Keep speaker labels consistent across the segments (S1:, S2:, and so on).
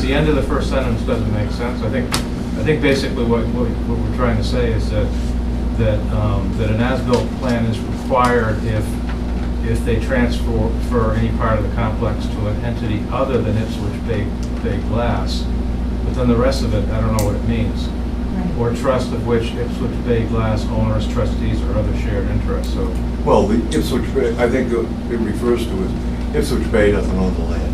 S1: the end of the first sentence doesn't make sense. I think, I think basically what, what what we're trying to say is that, that, um, that an as-built plan is required if, if they transfer for any part of the complex to an entity other than Ipswich Bay, Bay Glass. But then the rest of it, I don't know what it means.
S2: Right.
S1: Or trust of which Ipswich Bay Glass owners, trustees, or other shared interests, so.
S3: Well, the Ipswich Bay, I think it refers to as Ipswich Bay doesn't own the land.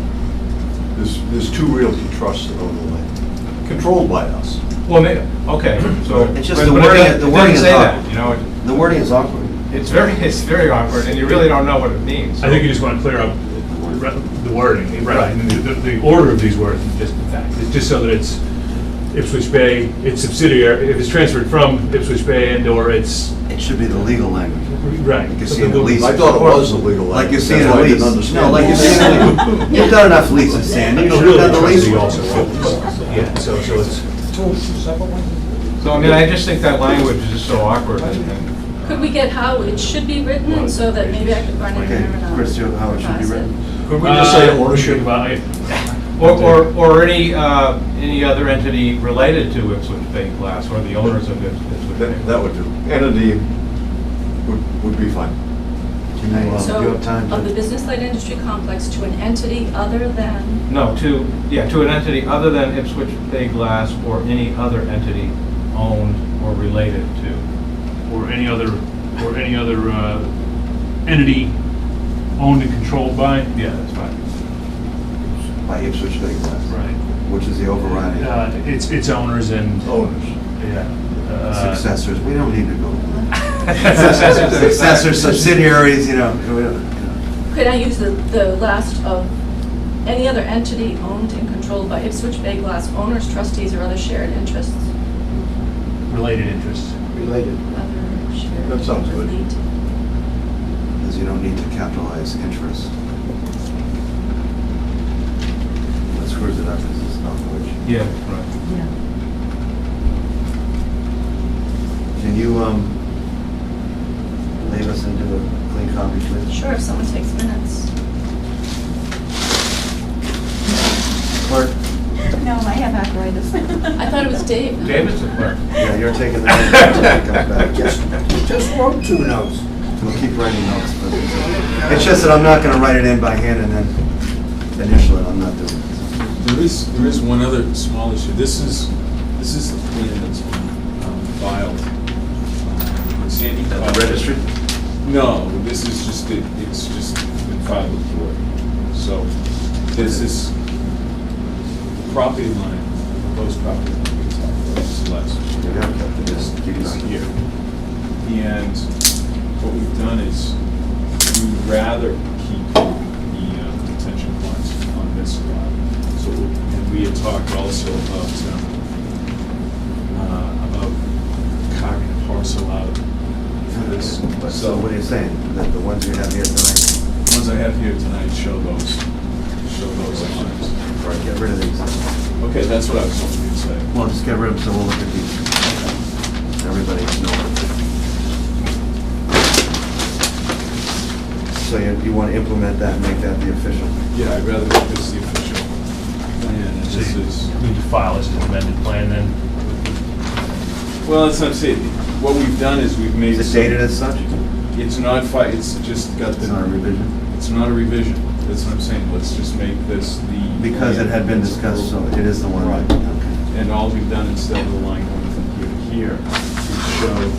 S3: There's, there's two realty trusts that own the land, controlled by us.
S1: Well, may, okay, so.
S4: It's just
S1: but- but it
S4: the wording-
S1: doesn't-
S4: the
S1: it doesn't
S4: wording is
S1: say
S4: odd.
S1: that, You know, it-
S4: The wording is awkward.
S1: it's very, it's very awkward, and you really don't know what it means.
S5: I think you just want to clear up re- the wording, right, and the, the order of these words, is just, in fact, it's just so that it's Ipswich Bay, it's subsidiary, if it's transferred from Ipswich Bay and/or it's,
S4: It should be the legal language.
S5: right.
S4: Like you see in the lease.
S3: I thought it was illegal.
S4: Like you see
S3: That's
S4: in a
S3: why I
S4: lease.
S3: didn't understand.
S4: No, like you see in a lease. You've done enough leases, Sandy. You
S5: The
S4: should have done
S5: realty
S4: the lease.
S5: trustee also
S4: one.
S5: owns, yeah, so, so it's,
S1: So, I mean, I just think that language is just so awkward, and, and-
S6: Could we get how it should be written, so that maybe I could run it
S4: Okay,
S6: in and
S4: Chris, you know how it should be
S6: revise
S4: written.
S3: Could we just say
S5: Uh,
S3: ownership?
S5: by-
S1: or, or, or any, uh, any other entity related to Ipswich Bay Glass, or the owners of Ips- Ipswich Bay.
S3: That, that would do. Entity would, would be fine.
S4: Do you, uh, do you
S6: So,
S4: have time
S6: of the
S4: to?
S6: business light industry complex to an entity other than,
S1: No, to, yeah, to an entity other than Ipswich Bay Glass or any other entity owned or related to.
S5: or any other, or any other uh, entity owned and controlled by,
S1: Yeah, that's fine.
S4: By Ipswich Bay Glass,
S5: right,
S4: which is the overriding
S5: Uh, its, its owners and,
S3: Owners.
S5: yeah. uh,
S4: successors. We don't need to go.
S1: Successors and
S4: Successors,
S1: effects.
S4: subsidiaries, you know. we don't-
S6: could I use the, the last of, any other entity owned and controlled by Ipswich Bay Glass owners, trustees, or other shared interests?
S5: related interests.
S3: Related.
S6: Other shared
S3: That sounds good.
S6: relate-
S4: Because you don't need to capitalize interest. That screws it up because it's not which.
S1: Yeah, right.
S2: Yeah.
S4: Can you, um, leave us into a clean copy, please?
S6: Sure, if someone takes minutes.
S4: Clerk?
S2: No, I have arthritis.
S6: I thought it was Dave.
S1: David's the clerk.
S4: Yeah, you're taking that. It comes back.
S7: Just, just wrote two notes.
S4: We'll keep writing notes, but it's just that I'm not gonna write it in by hand and then initial it, I'm not doing it.
S8: There is, there is one other small issue. This is, this is the plan that's been um, filed. uh, Sandy filed- No, this is just, it- it's just been filed with the board. So this is the property line, proposed property line, it's not, this is last.
S4: You got that,
S8: This
S4: just keep it
S8: is
S4: on.
S8: here. And what we've done is we'd rather keep the uh, detention ponds on this lot. So, and we had talked also about, um, uh, about carving a parcel out for this.
S4: So what are you saying, that the ones you have here tonight,
S8: The Ones I have here tonight show those, show those lines.
S4: or get rid of these?
S8: Okay, that's what I was hoping you'd say.
S4: Well, just get rid of them, so we'll look at these. Everybody knows. So you, you wanna implement that, and make that the official?
S8: Yeah, I'd rather make this the official plan, and
S5: So
S8: this
S5: you
S8: is.
S5: need to file as an amended plan then?
S8: Well, that's not saying, what we've done is we've made.
S4: Is it dated as such?
S8: It's not fi, it's just got
S4: It's not a
S8: the,
S4: revision?
S8: it's not a revision, that's what I'm saying, let's just make this the.
S4: Because it had been discussed, so it is the one.
S8: Right.
S4: Okay.
S8: And all we've done, instead of the line going from here to here, we show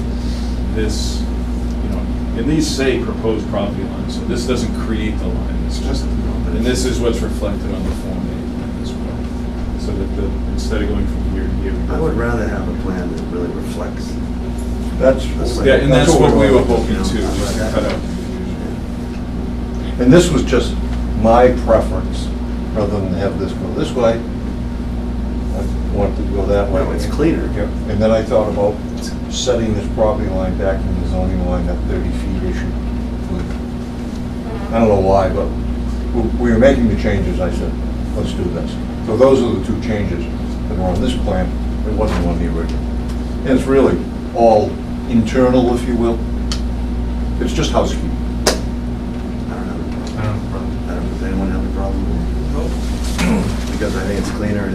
S8: this, you know, and these say proposed property line, so this doesn't create the line, it's just, and this is what's reflected on the Form A plan as well. So that the, instead of going from here to here. we
S4: I
S8: go-
S4: would rather have a plan that really reflects.
S3: That's.
S4: That's like-
S8: Yeah, and that's what we were hoping
S4: you
S8: to,
S4: know,
S8: just to
S4: like
S8: cut
S4: that.
S8: out. the confusion.
S3: And this was just my preference, rather than have this go this way. I wanted to go that way.
S4: No, it's cleaner.
S3: Yep. And then I thought about setting this property line back from the zoning line, that 30 feet issue. I don't know why, but we- we were making the changes, I said, let's do this. So those are the two changes that were on this plan, it wasn't on the original. And it's really all internal, if you will. It's just housekeeping.
S4: I don't have a
S1: I
S4: problem.
S1: don't know.
S4: I don't, does anyone have a problem? with it? Because I think it's cleaner and